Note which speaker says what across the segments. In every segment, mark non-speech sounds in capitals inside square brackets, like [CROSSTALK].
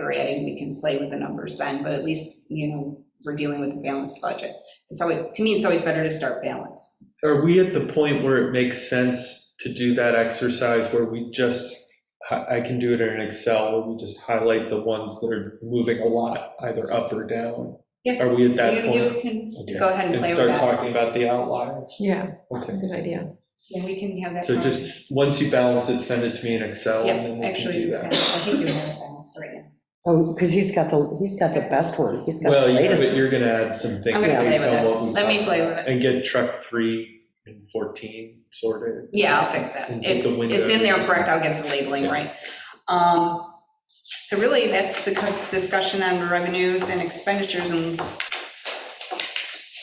Speaker 1: we're adding, we can play with the numbers then, but at least, you know, we're dealing with a balanced budget. It's always, to me, it's always better to start balanced.
Speaker 2: Are we at the point where it makes sense to do that exercise where we just, I I can do it in Excel, where we just highlight the ones that are moving a lot, either up or down?
Speaker 1: Yeah.
Speaker 2: Are we at that
Speaker 1: You,
Speaker 2: point?
Speaker 1: you can
Speaker 2: Okay.
Speaker 1: go ahead and
Speaker 2: And
Speaker 1: play with
Speaker 2: start
Speaker 1: that.
Speaker 2: talking about the outliers?
Speaker 3: Yeah,
Speaker 2: Okay.
Speaker 3: good idea.
Speaker 1: Yeah, we can have that.
Speaker 2: So just, once you balance it, send it to me in Excel and then
Speaker 1: Yeah,
Speaker 2: we can do
Speaker 1: actually, I
Speaker 2: that.
Speaker 1: think you have it balanced right now.
Speaker 4: Oh, because he's got the, he's got the best one. He's got
Speaker 2: Well,
Speaker 4: the
Speaker 2: yeah, but
Speaker 4: latest.
Speaker 2: you're gonna add some things
Speaker 1: I'm gonna play
Speaker 2: based
Speaker 1: with
Speaker 2: on
Speaker 1: it.
Speaker 2: what we.
Speaker 1: Let me
Speaker 2: talked
Speaker 1: play
Speaker 2: about,
Speaker 1: with
Speaker 2: And get truck three and 14 sorted.
Speaker 1: Yeah, I'll fix it.
Speaker 2: And get
Speaker 1: It's,
Speaker 2: the windows.
Speaker 1: it's in there, correct, I'll get the labeling right. Um, So really, that's the co- discussion on revenues and expenditures, and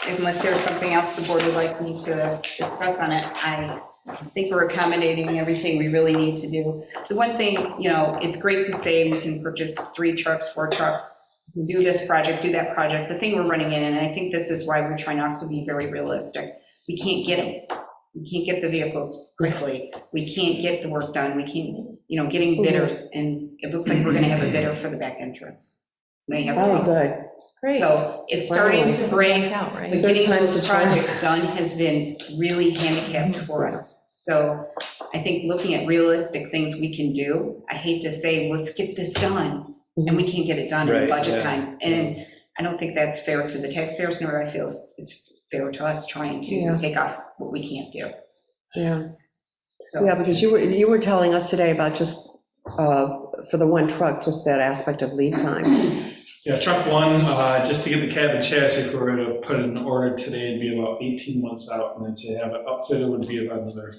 Speaker 1: unless there's something else the board would like me to discuss on it, I think we're accommodating everything we really need to do. The one thing, you know, it's great to say we can purchase three trucks, four trucks, do this project, do that project. The thing we're running in, and I think this is why we're trying also to be very realistic, we can't get them. We can't get the vehicles quickly. We can't get the work done. We can't, you know, getting bidders, and it looks like we're going to have a bidder for the back entrance. May have a
Speaker 4: Oh,
Speaker 1: problem.
Speaker 4: good.
Speaker 3: Great.
Speaker 1: So it's starting to break.
Speaker 3: out,
Speaker 1: But
Speaker 3: right?
Speaker 4: Third
Speaker 1: getting
Speaker 4: time's Mm-hmm.
Speaker 1: those
Speaker 4: the charm.
Speaker 1: projects done has been really handicapped for us. So I think looking at realistic things we can do, I hate to say, let's get this done, and we can't get it done in
Speaker 2: Right,
Speaker 1: budget
Speaker 2: yeah.
Speaker 1: time. And I don't think that's fair to the taxpayers, nor I feel it's fair to us trying
Speaker 4: Yeah.
Speaker 1: to take off what we can't do.
Speaker 4: Yeah, yeah,
Speaker 1: So,
Speaker 4: because you were, you were telling us today about just, uh, for the one truck, just that aspect of lead time.
Speaker 5: Yeah, truck one, uh, just to get the cab and chassis, if we were to put an order today, it'd be about 18 months out, and then to have it outfitted would be about another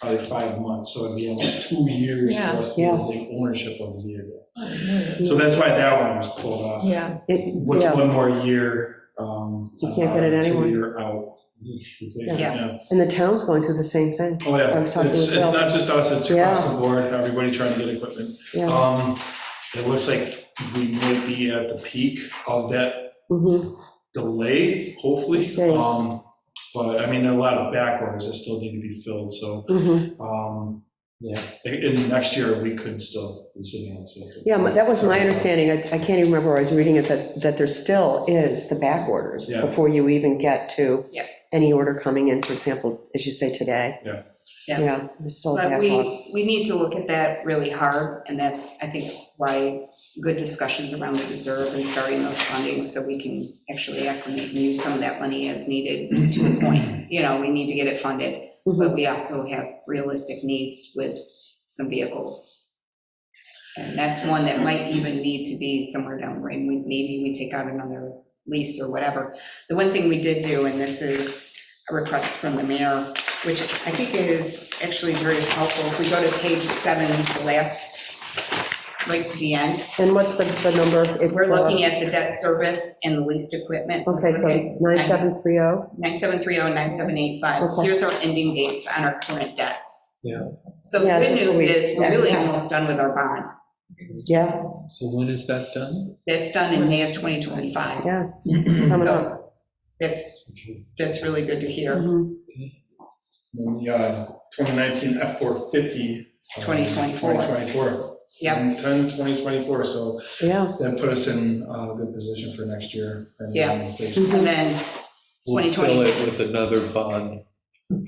Speaker 5: probably five months, so it'd be almost two years for us to be able to take ownership of the vehicle. So that's why that one was pulled off,
Speaker 3: Yeah,
Speaker 4: It-
Speaker 5: with
Speaker 4: Yeah,
Speaker 5: one more year. um,
Speaker 4: You can't get it
Speaker 5: uh,
Speaker 4: anywhere.
Speaker 5: Two-year out.
Speaker 1: Yeah.
Speaker 4: and the town's going through the same thing,
Speaker 5: Oh, yeah,
Speaker 4: I was
Speaker 5: it's,
Speaker 4: talking
Speaker 5: it's
Speaker 4: to Bill.
Speaker 5: not just us, it's across the board, everybody trying to get equipment.
Speaker 4: yeah.
Speaker 5: Um, It looks like we might be at the peak of that
Speaker 4: Mhm.
Speaker 5: delay, hopefully.
Speaker 4: Same.
Speaker 5: Um, But, I mean, there are a lot of back orders that still need to be filled, so,
Speaker 4: Mhm.
Speaker 5: um, yeah, in in next year, we could still be sitting on something.
Speaker 4: Yeah, my- that was my understanding, I I can't even remember where I was reading it, that, that there still is the back orders
Speaker 5: Yeah.
Speaker 4: before you even get to
Speaker 1: Yeah.
Speaker 4: any order coming in, for example, as you say today.
Speaker 5: Yeah.
Speaker 1: Yeah.
Speaker 4: Yeah, there's still a
Speaker 1: but
Speaker 4: backlog.
Speaker 1: we, we need to look at that really hard, and that's, I think, why good discussions around the reserve and starting those fundings, so we can actually acclimate and use some of that money as needed to a point. You know, we need to get it funded,
Speaker 4: Mhm.
Speaker 1: but we also have realistic needs with some vehicles. And that's one that might even need to be somewhere down the line, We- maybe we take out another lease or whatever. The one thing we did do, and this is a request from the mayor, which I think is actually very helpful, if we go to page seven, the last, right to the end,
Speaker 4: And what's the, the number? It's,
Speaker 1: we're
Speaker 4: uh,
Speaker 1: looking at the debt service and the leased equipment.
Speaker 4: Okay, so 9730,
Speaker 1: 9730, 9785,
Speaker 4: Okay.
Speaker 1: here's our ending dates on our current debts.
Speaker 2: Yeah.
Speaker 1: So the
Speaker 4: Yeah,
Speaker 1: good
Speaker 4: just so
Speaker 1: news
Speaker 4: we-
Speaker 1: is, we're
Speaker 4: yeah.
Speaker 1: really almost done with our bond.
Speaker 4: yeah,
Speaker 2: So when is that done?
Speaker 1: That's done in May of 2025.
Speaker 4: yeah, it's coming up.
Speaker 1: So That's, that's really good to hear,
Speaker 4: Mhm.
Speaker 5: [CLEARS THROAT] When the uh, 2019 F-450. um,
Speaker 1: 2024.
Speaker 5: 2024.
Speaker 1: Yep.
Speaker 5: 10, 2024, so
Speaker 4: Yeah,
Speaker 5: that put us in uh, a good position for next year. and, um,
Speaker 1: Yeah.
Speaker 5: basically-
Speaker 4: Mm-hmm.
Speaker 1: and then
Speaker 2: We'll
Speaker 1: 2020.
Speaker 2: fill it with another bond.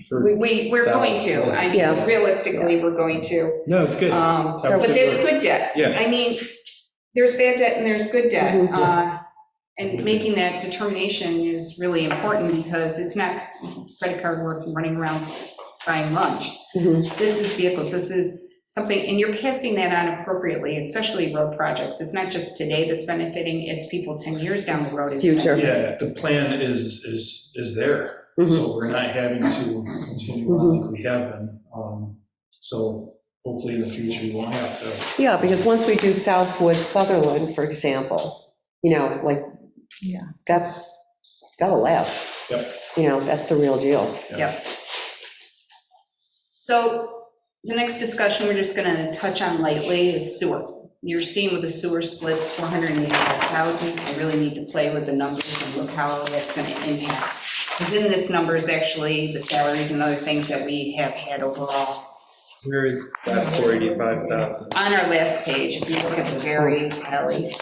Speaker 2: for-
Speaker 1: we, we- we're
Speaker 2: So-
Speaker 1: going to, I mean,
Speaker 4: Yeah.
Speaker 1: realistically, we're going to.
Speaker 2: No, it's good.
Speaker 1: Um,
Speaker 2: So-
Speaker 1: But there's good debt.
Speaker 2: Yeah.
Speaker 1: I mean, there's bad debt and there's good debt.
Speaker 4: Mhm.
Speaker 1: Uh, And making that determination is really important because it's not credit card worth running around buying lunch.
Speaker 4: mhm.
Speaker 1: This is vehicles, this is something, and you're passing that on appropriately, especially road projects. It's not just today that's benefiting, it's people 10 years down the road. it's
Speaker 4: Future.
Speaker 5: Yeah, the plan is, is, is there,
Speaker 4: Mhm.
Speaker 5: so we're not having to continue on like we have been. Um, So hopefully in the future, we won't have to
Speaker 4: yeah, because once we do Southwood, Sutherland, for example, you know, like,
Speaker 3: Yeah.
Speaker 4: that's, gotta last.
Speaker 5: Yep.
Speaker 4: You know, that's the real deal.
Speaker 1: So the next discussion we're just going to touch on lightly is sewer. You're seeing with the sewer splits, 485,000. I really need to play with the numbers and look how that's going to impact. Because in this number is actually the salaries and other things that we have had overall
Speaker 2: Where is that 485,000?
Speaker 1: On our last page, if you look at the very tally.